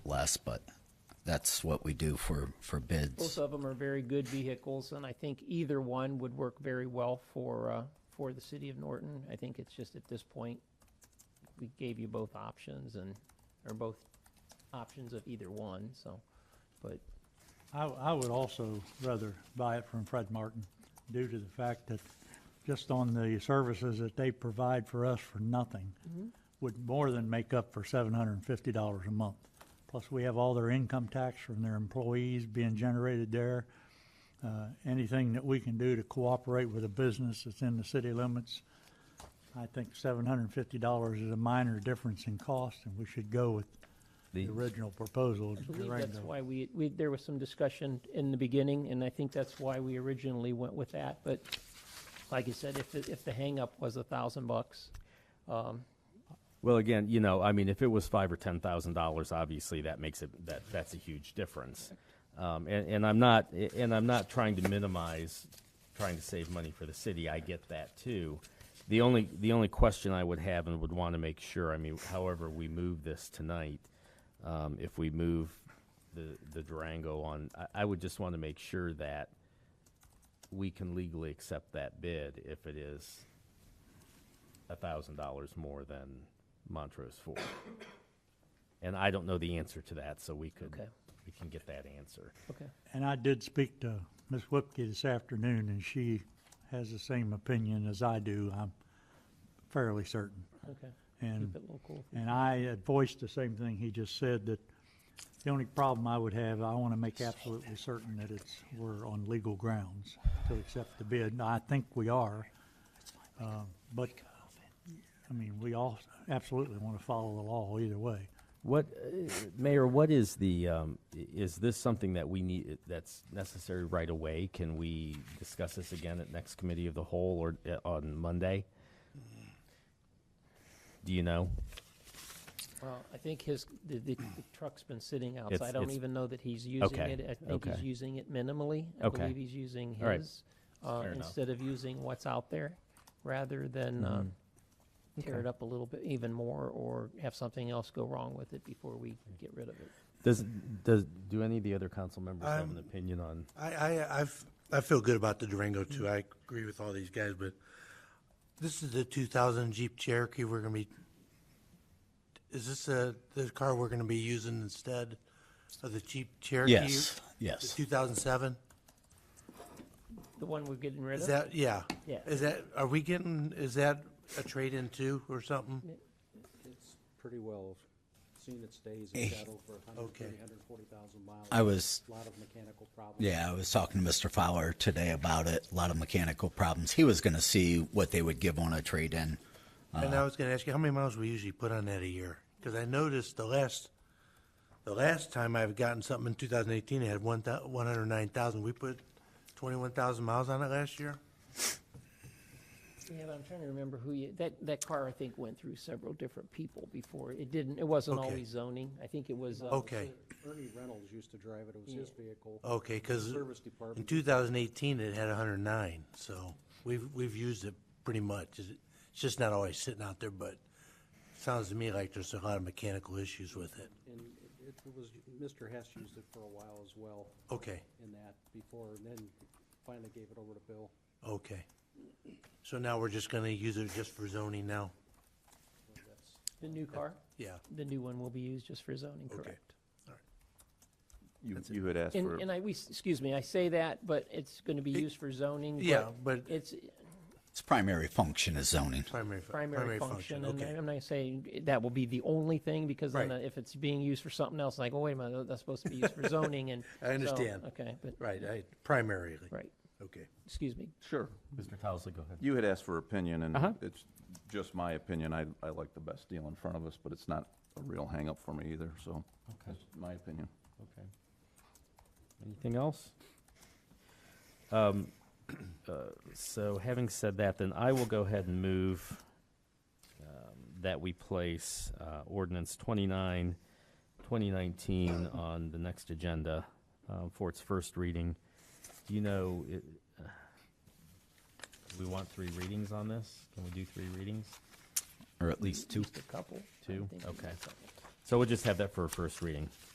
less, but that's what we do for, for Both bids. of them are very good vehicles, and I think either one would work very well for, uh, for the city of Norton. I think it's just at this point, we gave you both options and, or both options of either one, so, but I, I would also rather buy it from Fred Martin due to the fact that just on the services that they provide for us for nothing Mm-hmm. would more than make up for seven hundred and fifty dollars a month. Plus, we have all their income tax from their employees being generated there. Uh, anything that we can do to cooperate with a business that's in the city limits, I think seven hundred and fifty dollars is a minor difference in cost, and we should go with the original proposal. I believe that's why we, we, there was some discussion in the beginning, and I think that's why we originally went with that, but like I said, if, the- if the hangup was a thousand bucks, um, Well, again, you know, I mean, if it was five or ten thousand dollars, obviously that makes it that that's a huge difference. Um, and, and I'm not and I'm not trying to minimize trying to save money for the city. I get that too. The only the only question I would have and would want to make sure, I mean, however we move this tonight, um, if we move the the Durango on, I, I would just want to make sure that we can legally accept that bid if it is a thousand dollars more than Montrose Ford. And I don't know the answer to that, so we could, Okay. we can get that answer. okay. And I did speak to Ms. Whipke this afternoon, and she has the same opinion as I do, I'm fairly certain. Okay, keep And, it local. and I had voiced the same thing he just said, that the only problem I would have, I want to make absolutely certain that it's, we're on legal grounds to accept the bid, and I think we are. Um, But, I mean, we all absolutely want to follow the law either way. What, uh, Mayor, what is the, um, i- is this something that we need, that's necessary right away? Can we discuss this again at next committee of the whole or uh, on Monday? Do you know? Well, I think his, the, the the truck's been sitting outside. I don't it's- even know that he's using Okay, it. I think he's okay. using it minimally. I Okay. believe he's using All right. his, uh, Fair enough. instead of using what's out there, rather than, Hmm. um, tear it up a little bit even more or have something else go wrong with it before we get rid of it. Does, does, do any of the other council members have an opinion on? I, I, I've, I feel good about the Durango too. Mm-hmm. I agree with all these guys, but this is the two thousand Jeep Cherokee we're gonna be. Is this a, the car we're gonna be using instead of the Jeep Cherokee? Yes, The yes. two thousand seven? The one we're getting rid Is of, that, yeah. Yeah. Is that, are we getting, is that a trade-in too or something? It's pretty well seen its days and settled for a hundred, Okay. thirty, hundred and forty thousand miles. I was- Lot of mechanical problems. Yeah, I was talking to Mr. Fowler today about it, a lot of mechanical problems. He was going to see what they would give on a trade-in. And Uh-huh. I was gonna ask you, how many miles we usually put on that a year? Cause I noticed the last, the last time I've gotten something in two thousand eighteen, it had one thou, one hundred nine thousand. We put twenty-one thousand miles on it last year? yeah, but I'm trying to remember who you, that, that car, I think, went through several different people before. It didn't, it wasn't Okay. always zoning. I think it was, uh, Okay, Ernie Reynolds used to drive it. It was his vehicle. okay, cause Service in department. two thousand eighteen, it had hundred and nine, so we've, we've used it pretty much. Is it- It's just not always sitting out there, but sounds to me like there's a lot of mechanical issues with it. And it- it was, Mr. Hess used it for a while as well Okay. in that before, and then finally gave it over to Bill. Okay. So now we're just gonna use it just for zoning now? the new car. Yeah. The new one will be used just for zoning, correct? You, you had asked for, And, and I, we, excuse me, I say that, but it's going to be used for zoning. but Yeah, but It's Its primary function is zoning. primary, fu- primary function, and okay. I'm not saying that will be the only thing, because then Right. if it's being used for something else, like, oh, wait a minute, that's supposed to be used for zoning, and. I understand. so, Okay, but, Right, I, primarily. right, Okay. excuse me. sure. Mr. Towesley, go ahead. You had asked for opinion, and Uh-huh. it's just my opinion. I, I like the best deal in front of us, but it's not a real hangup for me either, so that's my opinion. Okay. Anything else? Um, uh, so having said that, then I will go ahead and move um, that we place uh, ordinance 29, 2019 on the next agenda um, for its first reading. Do you know, it, uh, we want three readings on this? Can we do three readings? Or at least two. Just a couple. I Two? think. Okay. So we'll just have that for a first reading.